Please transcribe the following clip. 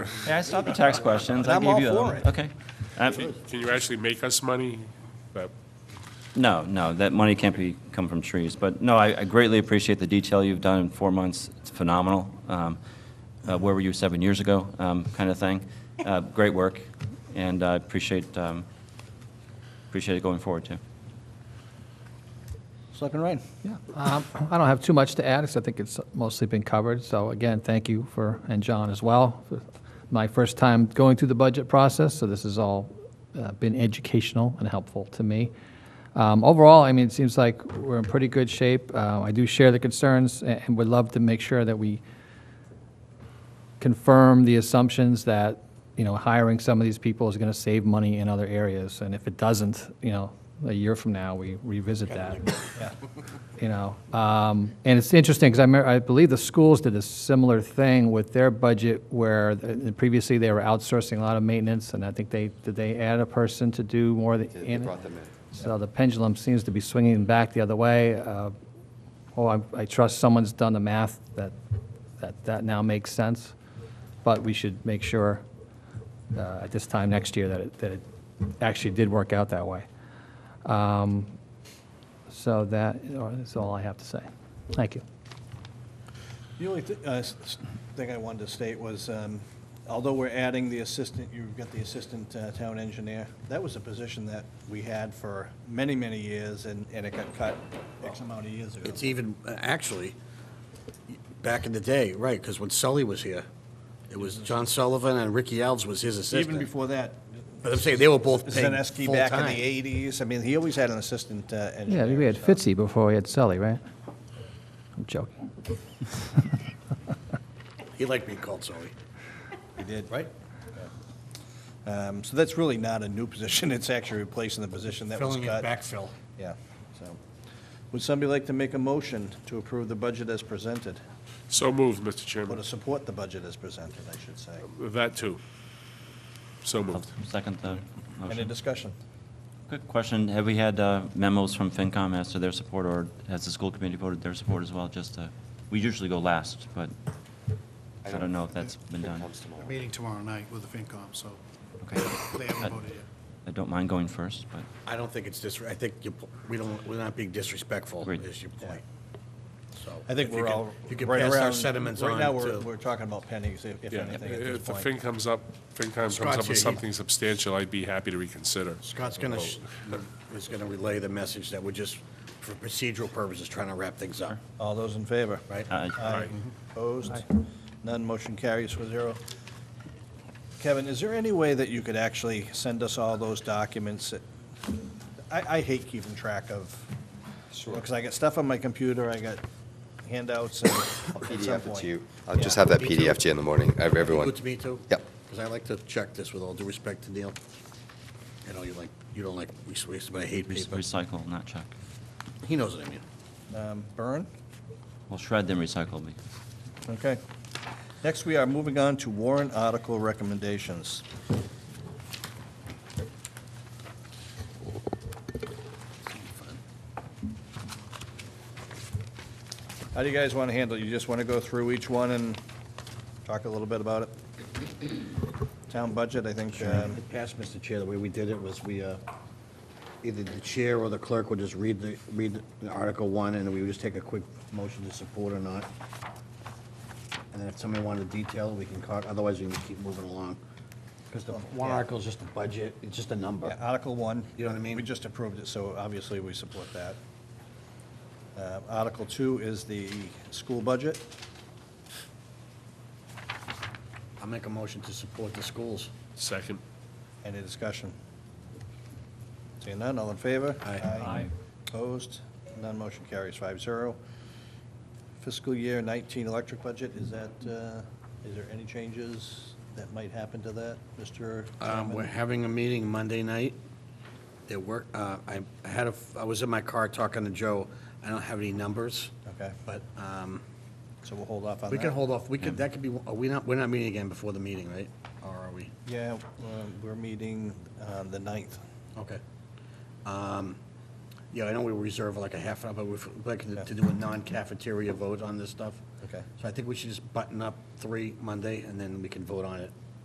Hey, I stopped the tax questions. I I'm gave all you that for one. it. Okay. Uh, Can can you actually make us money? That- No, no, that money can't be, come from trees. But no, I I greatly appreciate the detail you've done in four months. It's phenomenal. Um, uh, Where were you seven years ago, kind of thing. Uh, Great work, and I appreciate, um, appreciate it going forward, too. Selectman Ryan? Yeah, um, I don't have too much to add, because I think it's mostly been covered. So again, thank you for, and John as well. for My first time going through the budget process, so this has all uh, been educational and helpful to me. Um, Overall, I mean, it seems like we're in pretty good shape. Uh, I do share the concerns, a- and would love to make sure that we confirm the assumptions that, you know, hiring some of these people is going to save money in other areas. And if it doesn't, you know, a year from now, we revisit that. You know, um, and it's interesting because I, mer- I believe the schools did a similar thing with their budget where th- previously they were outsourcing a lot of maintenance and I think they, did they add a person to do more of the? They brought them in. So the pendulum seems to be swinging back the other way. Uh, Oh, I, I trust someone's done the math that, that, that now makes sense. But we should make sure uh, at this time next year that it, that it actually did work out that way. Um, So that is all I have to say. Thank you. The only thi- uh, s- s- thing I wanted to state was, um, although we're adding the assistant, you've got the assistant uh, town engineer, that was a position that we had for many, many years, and and it got cut X amount of years ago. It's even, uh, actually, back in the day, right, because when Sully was here, it was John Sullivan and Ricky Alves was his Even assistant. before that, But I'm saying they were both paid Zeneski back in full-time. the 80s, I mean, he always had an assistant uh, Yeah, engineer. we had so- Fitzy before we had Sully, right? I'm joking. He liked being called Sully. He did. Right. Um, So that's really not a new position, it's actually replacing the position that was Filling cut. in backfill. Yeah, so. Would somebody like to make a motion to approve the budget as presented? So moved, Mr. Or to Chairman. support the budget as presented, I should say? That too. So I'll moved. Second the Any motion. discussion? Quick question, have we had uh, memos from FinCom as to their support, or has the school committee voted their support as well? Just, uh, we usually go last, but I don't know if that's been done. Comes tomorrow. meeting tomorrow night with the FinCom, so Okay. they haven't voted yet. I don't mind going first, but. I don't think it's dis, I think you, we don't, we're not being disrespectful, Agreed. is your point. So. I think if you we're could- all If you could right pass our around- sentiments Right now, on we're, to, we're talking about pennies, if if Yeah, anything, at if the this thing point. comes up, FinCom comes Scott's up with here, he- something substantial, I'd be happy to reconsider. Scott's gonna, sh- is gonna relay the message that we're just, for procedural purposes, trying to wrap things up, All those in favor? right? uh, Aye. Mhm. Opposed? None, motion carries with zero. Kevin, is there any way that you could actually send us all those documents? that- I, I hate keeping track of, because I got stuff on my computer, I got handouts and at some PDF it point. to you. I'll just Yeah. have that Me too. PDF to you in the morning, ev- everyone. Good to me, too? Yep. Because I like to check this with all due respect to Neil. I know you like, you don't like waste, but I hate Re- paper. Recycle, not check. He knows what I mean. Um, Byrne? Well, shred then recycle me. Okay. Next, we are moving on to warrant article recommendations. How do you guys want to handle it? You just want to go through each one and talk a little bit about it? Town budget, I think, um, In the past, Mr. Chair, the way we did it was we, uh, either the chair or the clerk would just read the, read the Article 1, and we would just take a quick motion to support or not. And then if somebody wanted to detail it, we can, call- otherwise we can keep moving along. Because the one Yeah. article is just a budget, it's just a number. yeah, Article 1. You know what I mean? We just approved it, so obviously we support that. Uh, Article 2 is the school budget. I'll make a motion to support the schools. Second. Any discussion? Seeing none, all in favor? Aye. Aye. Opposed? None motion carries five zero. Fiscal year 19 electric budget, is that, uh, is there any changes that might happen to that, Mr. Um, Chairman? We're having a meeting Monday night. There were, uh, I had a, I was in my car talking to Joe. I don't have any numbers, Okay, but um, so we'll hold off on that. we can hold off. We could, that could be, are we not, we're not meeting again before the meeting, right? Or are we? Yeah, um, we're meeting on the 9th. Okay. Um, Yeah, I know we reserve like a half hour, but we'd like to to do a non-cafeteria vote on this stuff. Okay. So I think we should just button up three Monday, and then we can vote on it